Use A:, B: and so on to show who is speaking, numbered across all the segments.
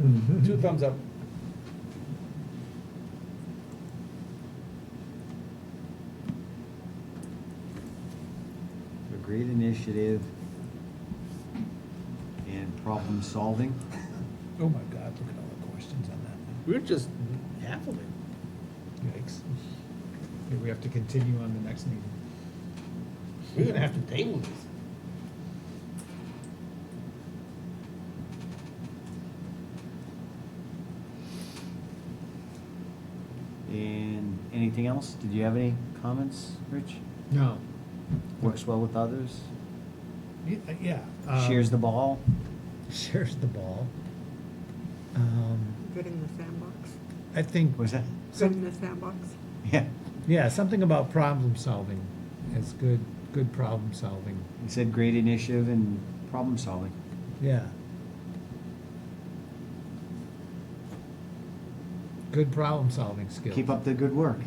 A: Mm-hmm.
B: Two thumbs up.
C: A great initiative and problem solving.
B: Oh my God, look at all the questions on that
D: We're just half of it.
B: one. Yikes. Yeah, we have to continue on the next meeting.
D: We're gonna have to table this.
C: And anything else? Did you have any comments, Rich?
A: No.
C: Works well with others,
A: Y- uh, Yeah. um,
C: shares the ball.
A: Shares the ball. Um,
E: Good in the sandbox.
A: I think,
C: Was that?
E: Good in the sandbox.
C: Yeah,
A: yeah, something about problem solving is good, good problem solving.
C: he said great initiative and problem solving.
A: Yeah. Good problem solving skills.
C: Keep up the good work.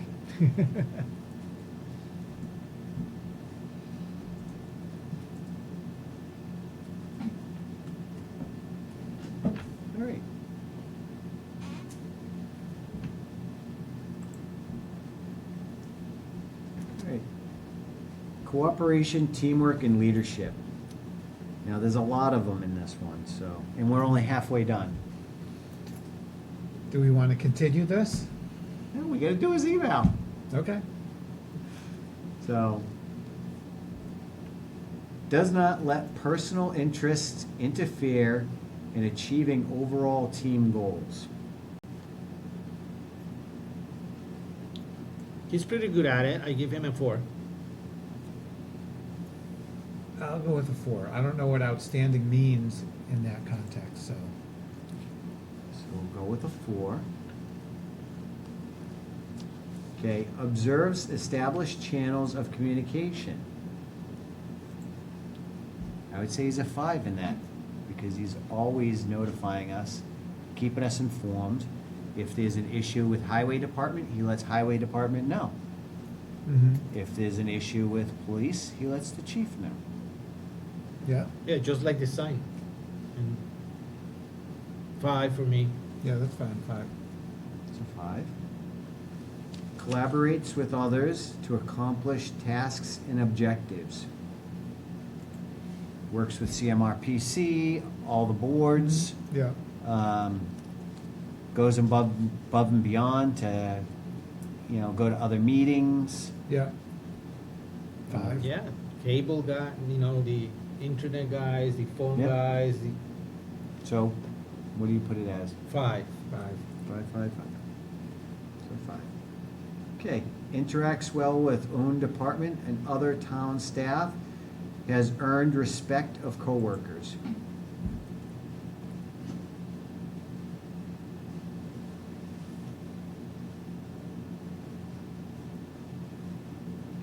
C: All right. All right. Cooperation, teamwork, and leadership. Now, there's a lot of them in this one, so, and we're only halfway done.
A: Do we want to continue this?
C: All we gotta do is eval.
A: Okay.
C: So, does not let personal interests interfere in achieving overall team goals.
D: He's pretty good at it. I give him a four.
A: I'll go with a four. I don't know what outstanding means in that context, so.
C: So we'll go with a four. Okay, observes established channels of communication. I would say he's a five in that because he's always notifying us, keeping us informed. If there's an issue with highway department, he lets highway department know.
A: Mm-hmm.
C: If there's an issue with police, he lets the chief know.
A: Yeah,
D: Yeah, just like the sign. And Five for me.
A: yeah, that's fine, five.
C: It's a five. Collaborates with others to accomplish tasks and objectives. Works with CMRPC, all the boards,
A: Yeah.
C: um, goes above, above and beyond to, you know, go to other meetings.
A: Yeah. Five.
D: Yeah, cable guy, you know, the internet guys, the phone
C: Yeah.
D: guys, the
C: So, what do you put it as?
D: five.
A: Five.
C: Five, five, five. So five. Okay, interacts well with own department and other town staff, has earned respect of coworkers.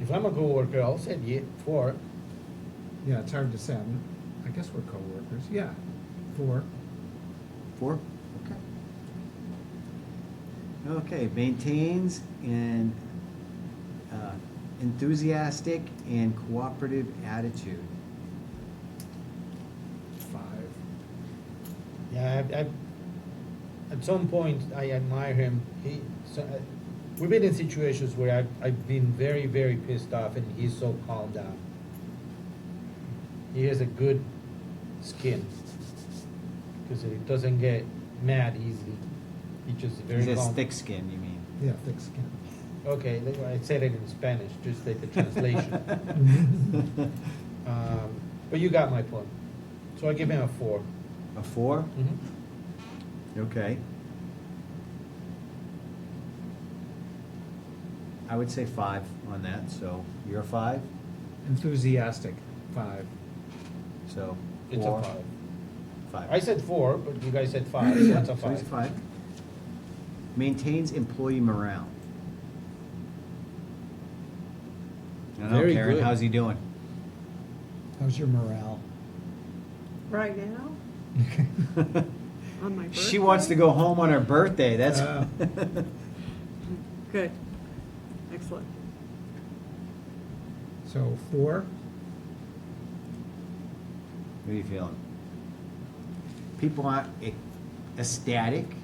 D: If I'm a coworker, I'll say yeah, four.
A: Yeah, it's hard to say. I'm- I guess we're coworkers. Yeah, four.
C: Four? Okay. Okay, maintains an uh, enthusiastic and cooperative attitude.
A: Five.
D: Yeah, I, I, at some point, I admire him. He, so, uh, we've been in situations where I've, I've been very, very pissed off, and he's so calmed down. He has a good skin because he doesn't get mad easily. He just very
C: He's a
D: calm.
C: thick skin, you mean?
A: Yeah, thick skin.
D: Okay, that's why I said it in Spanish, just like the translation. um, but you got my point. So I give him a 4
C: A four?
D: Mm-hmm.
C: Okay. I would say five on that, so you're a five,
A: Enthusiastic, five.
C: so
D: It's
C: four,
D: a five.
C: five.
D: I said four, but you guys said five, so that's a
C: So he's
D: five.
C: five. Maintains employee morale. I don't know,
D: Very
C: Karen,
D: good.
C: how's he doing?
A: How's your morale?
E: Right now, on my birthday.
C: She wants to go home on her birthday, that's.
A: Oh.
E: Good. Excellent.
A: So four,
C: What are you feeling? People aren't, it, ecstatic